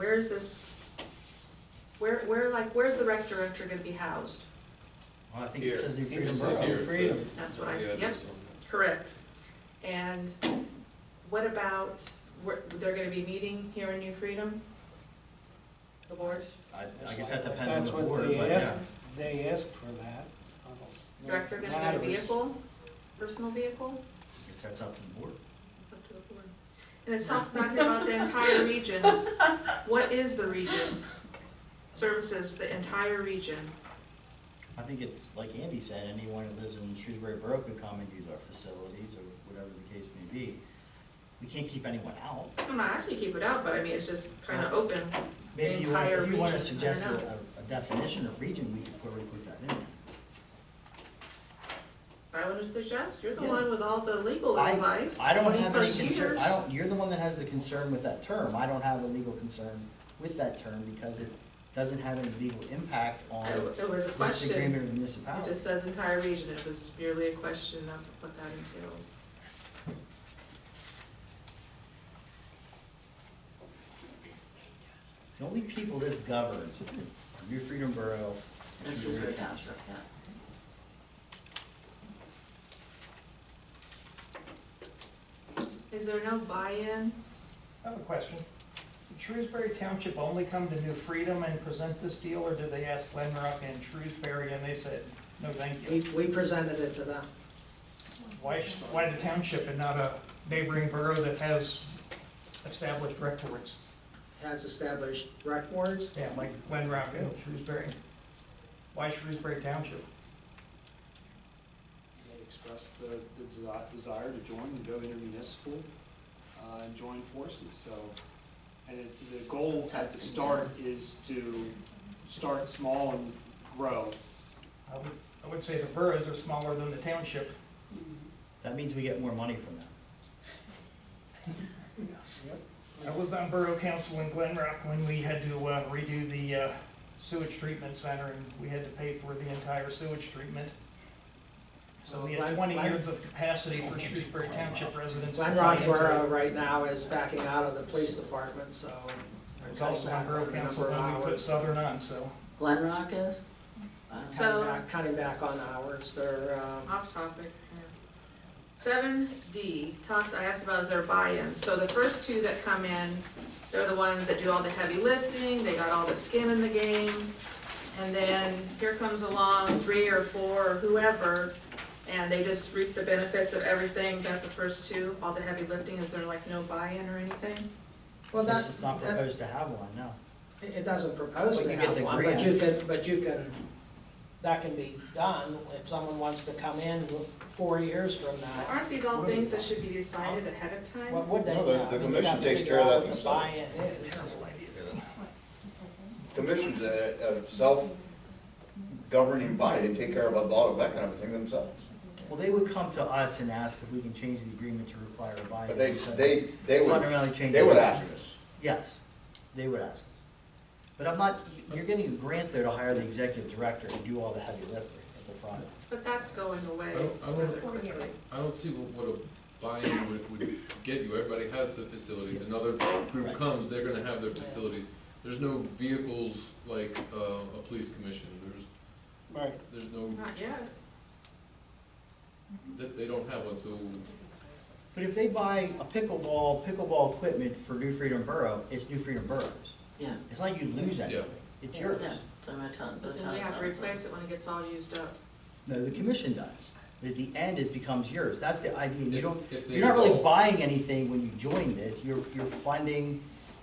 Where is this, where, where, like, where's the rec director gonna be housed? Well, I think it Here. says New It Freedom says here, Borough, it says- Freedom. That's what I, Yeah, yep, there's something. correct. And what about, where, they're gonna be meeting here in New Freedom? The boards, I, I guess that depends That's on the what board, they but yeah. asked- They asked for that. I don't know if director gonna get a matters. vehicle, personal vehicle? I guess that's up to the board. It's up to the board. And it talks not here about the entire region. What is the region? Services, the entire region. I think it's, like Andy said, anyone who lives in Shrewsbury Borough could come and use our facilities or whatever the case may be. We can't keep anyone out. I'm not asking you to keep it out, but I mean, it's just kind of open. Maybe you, want- Entire if you want to region, I suggest don't a, know. a definition of region, we could probably put that in. there. I would suggest, you're the Yeah. one with all the legal I, advice. I don't have 20 any plus concern, I years. don't, you're the one that has the concern with that term. I don't have a legal concern with that term because it doesn't have any legal impact I- on It was a this agreement question. or It municipality. just says entire region. It was merely a question of what that entails. The only people this governs are New Freedom Borough and Shrewsbury Township. Is there no buy-in? I have a question. Did Shrewsbury Township only come to New Freedom and present this deal, or did they ask Glenrock and Shrewsbury and they said, no, thank We, you? we presented it to them. Why, sh- why the township and not a neighboring borough that has established records? Has established rec boards. Yeah, like Glenrock and Shrewsbury. Why Shrewsbury Township? They expressed the the desi- desire to join and go intermunicipal uh, and join forces, so. And it- the goal at the start is to start small and grow. I would, I would say the boroughs are smaller than the township. That means we get more money from them. I was on Borough Council in Glen Rock when we had to uh, redo the uh, sewage treatment center, and we had to pay for the entire sewage treatment. So we had Glen- twenty Glen- years of capacity for Shrewsbury Township residents. to Glen buy Rock into Borough it. right now is backing out of the police department, so. I they're was cutting also on back Borough on the Council number of when we put hours. Southern on, so. Glen Rock is? Cutting So- back, cutting back on hours. They're, um, Off topic. Seven D talks, I asked about is there buy-in? So the first two that come in, they're the ones that do all the heavy lifting, they got all the skin in the game. And then here comes along three or four or whoever, and they just reap the benefits of everything that the first two, all the heavy lifting, is there like no buy-in or anything? well, that, This is not that- proposed to have one, no. it it doesn't propose But to you get have the one, but grant. you can, but you can, that can be done if someone wants to come in four years from now. Aren't these all things that should be decided ahead of What time? would they? No, the- yeah, I the mean, we'd have commission to takes figure care of out that what the themselves. buy-in is. Commission's a, a self-governing body, they take care of all of that kind of thing themselves. Well, they would come to us and ask if we can change the agreement to require a buy-in. But they, because they, they would, Fundamentally change. they would the ask system. us. Yes, they would ask us. But I'm not, you're getting a grant there to hire the executive director and do all the heavy lifting at the front. But that's going away I Oh, don't- I don't- rather quickly. I don't see what, what a buy-in would, would get you, everybody has the facilities, another Right. group comes, they're gonna have their facilities. There's no vehicles like, uh, a police commission, there's, Right. there's no, Not yet. that, they don't have one, so But if they buy a pickleball, pickleball equipment for New Freedom Borough, it's New Freedom Borough's. Yeah, It's not you lose Yeah. anything, it's yeah, yours. so my town, the But town. then we have to council. replace it when it gets all used up. No, the commission does. But at the end, it becomes yours. That's the idea. You If- don't, if they you're not really dissolve- buying anything when you join this. You're, you're funding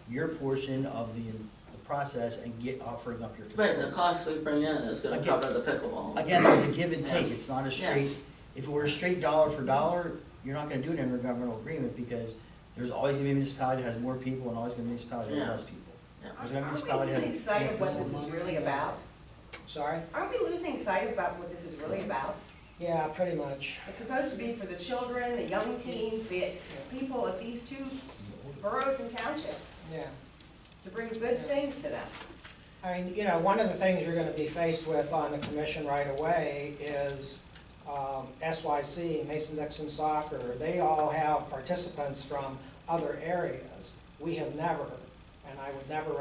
your portion of the, the process and get, offering up your Right, the facilities. cost we bring in is gonna Again- cover the pickleball. Again, there's a give and take. Yeah. It's not a Yeah. straight, if it were a straight dollar for dollar, you're not gonna do an intergovernmental agreement because there's always gonna be a municipality that has more people and always gonna be a municipality that Yeah. has less people. Yeah. There's gonna be a municipality that has. more facilities. Sorry? Aren't we losing sight about what this is really about? Yeah, pretty much. It's supposed to be for the children, the young teens, the people of these two boroughs and townships, Yeah. to bring good things to them. I mean, you know, one of the things you're gonna be faced with on the commission right away is um, SYC, Mason Dixon Soccer, they all have participants from other areas. We have never, and I would never